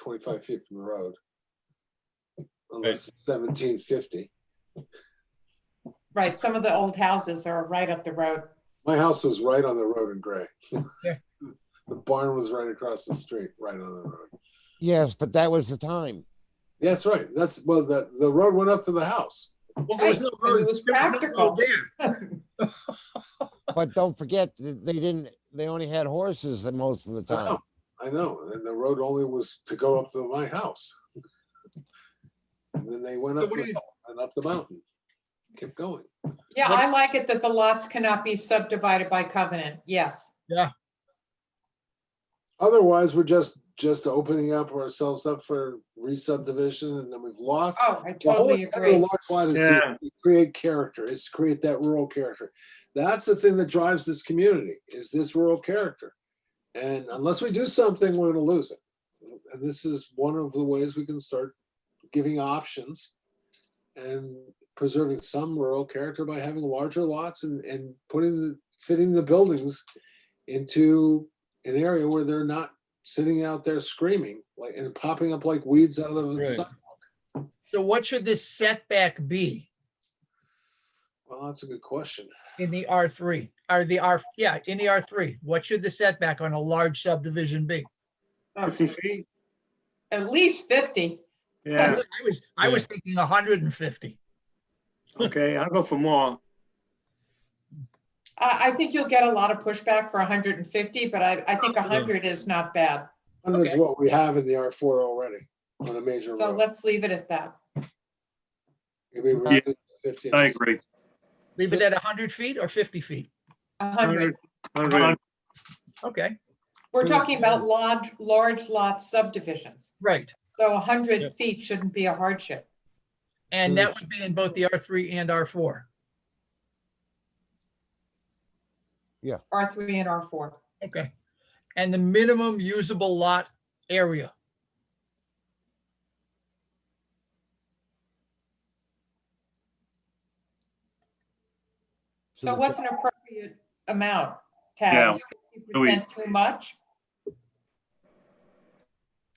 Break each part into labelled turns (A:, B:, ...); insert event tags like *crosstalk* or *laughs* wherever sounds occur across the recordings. A: twenty-five feet from the road. Unless it's seventeen fifty.
B: Right, some of the old houses are right up the road.
A: My house was right on the road in Gray.
C: Yeah.
A: *laughs* The barn was right across the street, right on the road.
D: Yes, but that was the time.
A: Yeah, That's right. That's, well, the, the road went up to the house.
C: Well, there was no
B: Right,
C: road,
B: it was
C: there was no road
B: practical.
C: there.
D: But don't forget, th- they didn't, they only had horses the most of the
A: I know,
D: time.
A: I know. And the road only was to go up to my house. And then they went
C: So
A: up
C: what
A: the
C: do you-
A: hill and up the mountain. Kept going.
B: Yeah, I like it that the lots cannot be subdivided by covenant. Yes.
A: Otherwise, we're just, just opening up ourselves up for re-subdivision and then we've lost.
B: Oh, I
A: The whole
B: totally
A: intent of a
B: agree.
A: large lot is to create character, is to create that rural character. That's the thing that drives this community, is this rural character. And unless we do something, we're gonna lose it. And this is one of the ways we can start giving options and preserving some rural character by having larger lots and, and putting, the fitting the buildings into an area where they're not sitting out there screaming, like, and popping up like weeds out of the
C: Right.
A: sun.
C: So what should this setback be
A: Well, that's a good question.
C: in the R three, or the R, yeah, in the R three? What should the setback on a large subdivision be?
B: Oh,
E: feet?
B: At least 50.
E: Yeah,
C: I was, I was thinking hundred and fifty.
E: okay, I'll go for more.
B: I, I think you'll get a lot of pushback for 150, but I, I think 100 is not bad.
A: Hundred is
C: Okay.
A: what we have in the R four already on a major
B: So
A: road.
B: let's leave it at that.
A: Could be rounded to 50.
E: I agree.
C: Leave it at hundred feet or fifty feet?
B: 100.
E: 100.
C: Okay,
B: We're talking about large, large lot subdivisions.
C: right.
B: So
F: Yep.
B: 100 feet shouldn't be a hardship.
C: And that would be in both the R three and R four.
B: R3 and R4.
C: Okay. And the minimum usable lot area.
B: So what's an appropriate amount?
E: Yeah.
B: Tab,
E: Do we-
B: percent too much?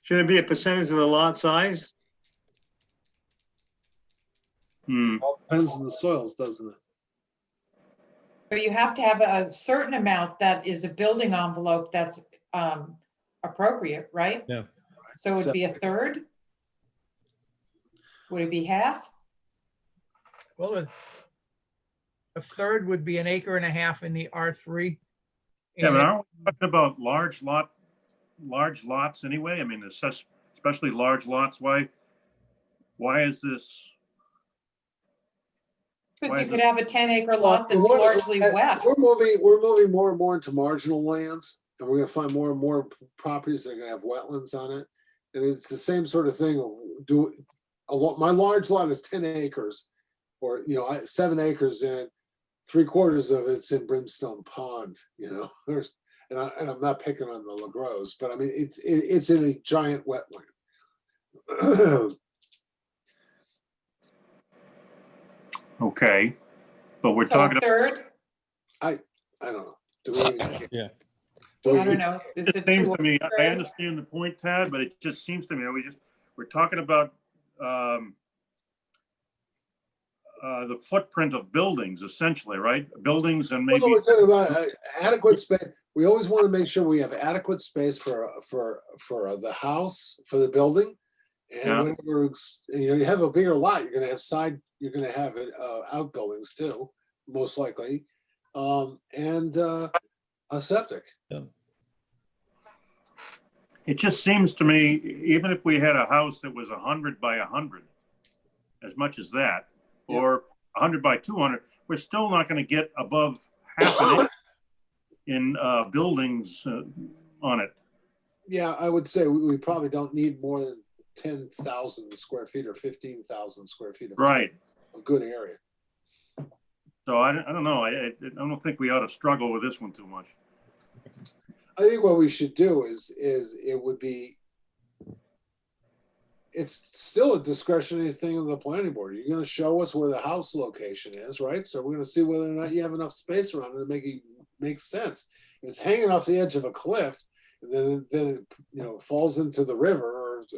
E: Should it be a percentage of the lot size? Hmm,
A: All Depends on the soils, doesn't it?
B: But you have to have a certain amount that is a building envelope that's um, appropriate, right?
F: Yeah.
B: So it'd be a third? Would it be half?
C: Well, a- a third would be an acre and a half in the R three.
G: Yeah, but aren't we talking about large lot, large lots anyway? I mean, it's such- especially large lots, why, why is this? Why
B: Because you
G: is
B: could
G: this-
B: have a ten acre lot that's
A: Well, we're-
B: largely wet.
A: We're moving, we're moving more and more into marginal lands and we're gonna find more and more p- properties that are gonna have wetlands on it. And it's the same sort of thing. Do, a lot, my large lot is ten acres or, you know, I, seven acres and three quarters of it's in Brimstone Pond, you know, *laughs* there's, and I, and I'm not picking on the LaGroves, but I mean, it's, it, it's in a giant wetland. *clears throat*
G: Okay, but we're
B: So a
G: talking,
B: Third,
A: I don't know. Do we?
F: Yeah.
A: Do
B: I don't
A: we-
B: know. Is
G: it
B: it
G: seems
B: two
G: to me, I
B: third?
G: understand the point, Tad, but it just seems to me, we just, we're talking about, um, uh, the footprint of buildings essentially, right? Buildings and
A: Well,
G: maybe,
A: we're talking about uh, adequate space. We always want to make sure we have adequate space for, for, for the house, for the building.
G: Yeah.
A: And when we're, ex- you know, you have a bigger lot, you're gonna have side, you're gonna have uh, outbuildings too, most likely. Um, and, uh, a septic.
G: it just seems to me, even if we had a house that was a hundred by a hundred, as much as that,
A: Yeah.
G: or a hundred by two hundred, we're still not gonna get above half an inch in, uh, buildings, uh, on it.
A: Yeah, I would say we, we probably don't need more than ten thousand square feet or fifteen thousand square feet of
G: Right,
A: of good area.
G: so I, don't- I don't know, I, I I don't think we ought to struggle with this one too much.
A: I think what we should do is, is it would be, it's still a discretionary thing of the planning board. You're gonna show us where the house location is, right? So we're gonna see whether or not you have enough space around it to make it make sense. If it's hanging off the edge of a cliff, then, then, it, you know, falls into the river